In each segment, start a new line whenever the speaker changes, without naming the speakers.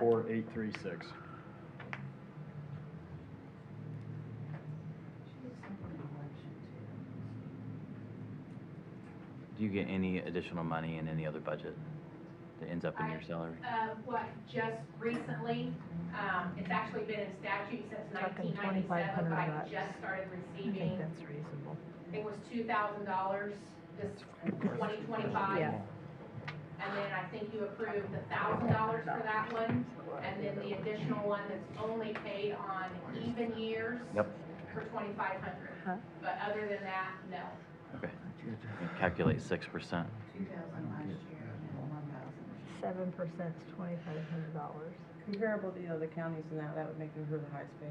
four eight three six.
Do you get any additional money in any other budget that ends up in your salary?
Uh, what, just recently, um, it's actually been in statute since
Talking
nineteen
2,500
ninety-seven, but I
bucks.
just started
I think
receiving,
that's reasonable.
it was two thousand dollars this twenty twenty-five.
Yeah.
And then I think you approved the thousand dollars for that one, and then the additional one that's only paid on even years.
Yep.
For twenty-five hundred,
Huh.
but other than that, no.
Calculate six percent.
Seven percent's twenty-five hundred dollars.
Comparable to the other counties and that, that would make them her the highest paid.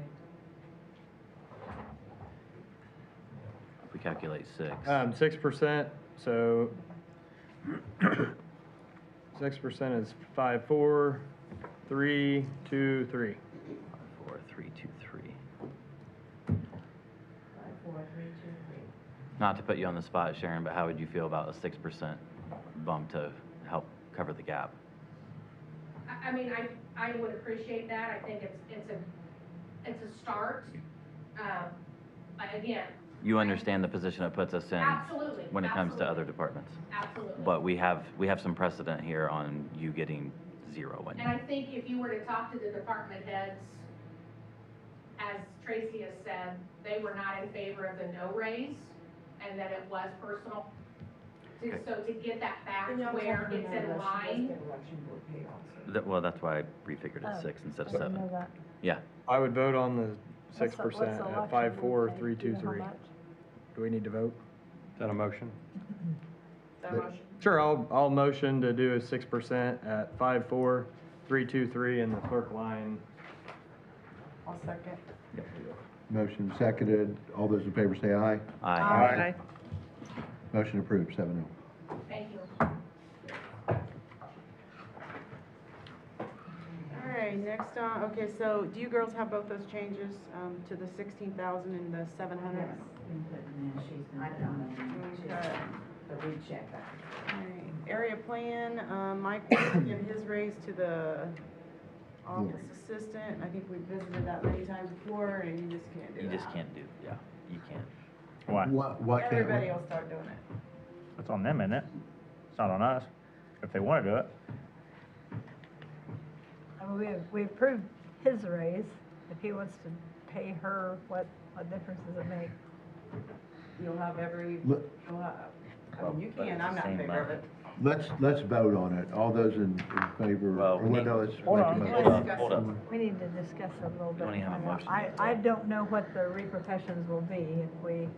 If we calculate six,
Um, six percent, so six percent is five, four, three, two, three.
five, four, three, two, three. Not to put you on the spot, Sharon, but how would you feel about a six percent bump to help cover the gap?
I, I mean, I, I would appreciate that, I think it's, it's a, it's a start. Um, but again,
You understand the position it puts us in
absolutely.
when it comes to
absolutely,
other departments.
Absolutely.
But we have, we have some precedent here on you getting zero when
And I think if you were to talk to the department heads, as Tracy has said, they were not in favor of the no raise, and that it was personal. To-
Okay.
So to get that back where it's in line,
That- Well, that's why I refigured
Oh,
it six instead of
I didn't know
seven.
that.
I would vote on the
What's
six
the- what's the
percent at
election
five,
we
four,
pay?
three,
Do you
two,
know how
three.
much?
Do we need to vote?
Is that a motion?
That
But-
motion?
Sure, I'll, I'll motion to do a six percent at five, four, three, two, three in the clerk line.
I'll second.
Motion seconded. All those in favor say aye.
Aye.
Aye. Motion approved, seven oh.
thank you.
All right, next on, okay, so do you girls have both those changes, um, to the sixteen thousand and the seven hundred? All right, area plan, um, Mike will give his raise to the office assistant. I think we visited that many times before and you just can't do
You
that.
just can't do, yeah, you can't.
Why?
What, what can't we-
Everybody will start doing it.
It's on them, isn't it? It's not on us. If they want to do it,
I mean, we, we approved his raise. If he wants to pay her, what, what difference does it make?
You'll have every,
Let-
you'll have, I mean, you
Well, but
can,
it's
I'm
the
not
same
in favor of it.
amount.
Let's, let's vote on it. All those in, in favor,
Well,
or
we need-
no, let's.
Hold
make a
on,
motion.
hold on, hold
on.
We need to discuss it a little
We
bit.
don't even have a
I-
motion.
I, I don't know what the repercussions will be if we,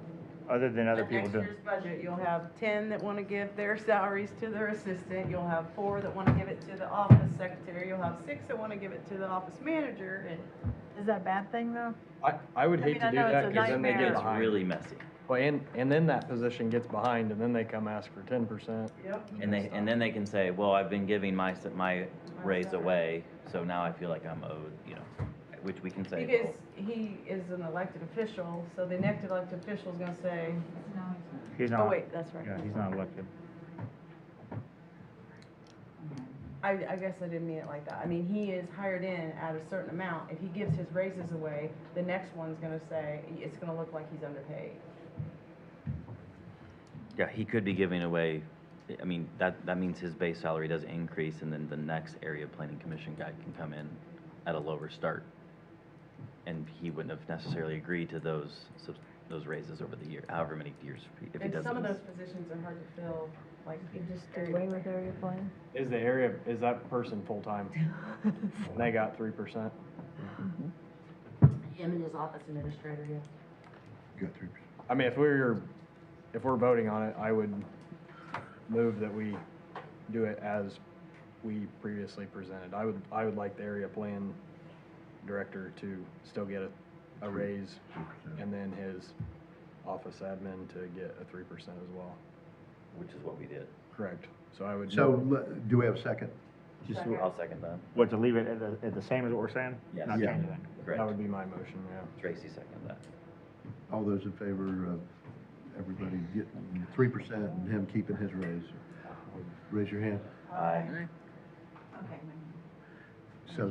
other than other
But
people do.
Next year's budget, you'll have ten that wanna give their salaries to their assistant, you'll have four that wanna give it to the office secretary, you'll have six that wanna give it to the office manager, and
is that a bad thing though?
I, I would
I
hate
mean,
to
I
do
know it's
that
a
because then they get
nightmare.
It's
behind.
really messy.
Well, and, and then that position gets behind and then they come ask for ten percent.
Yep.
And they, and then they can say, well, I've been giving my, s- my raise
salary.
away, so now I feel like I'm owed, you know, which we can say.
Because
well,
he is an elected official, so the next elected official's gonna say,
He's
oh
not,
wait, that's right.
yeah, he's not elected.
I, I guess I didn't mean it like that. I mean, he is hired in at a certain amount. If he gives his raises away, the next one's gonna say, it's gonna look like he's underpaid.
Yeah, he could be giving away, I mean, that, that means his base salary does increase and then the next area planning commission guy can come in at a lower start. And he wouldn't have necessarily agreed to those, subs- those raises over the year, however many years, if he
And
does
some of
this.
those positions are hard to fill, like.
You just do
area
away with area plan?
Is the area, is that person full-time? And they got three percent?
Him and his office administrator, yeah.
Got three percent.
I mean, if we're, if we're voting on it, I would move that we do it as we previously presented. I would, I would like the area plan director to still get a, a raise, and then his office admin to get a three percent as well.
Which is what we did.
Correct. So I would.
So, le- do we have a second?
Just, I'll second that.
What, to leave it at the, at the same as what we're saying?
Yes.
Not
Yeah.
changing it.
That
Correct.
would be my motion, yeah.
Tracy seconded that.
All those in favor of everybody getting three percent and him keeping his raise? Raise your hand.
Aye.
Okay, my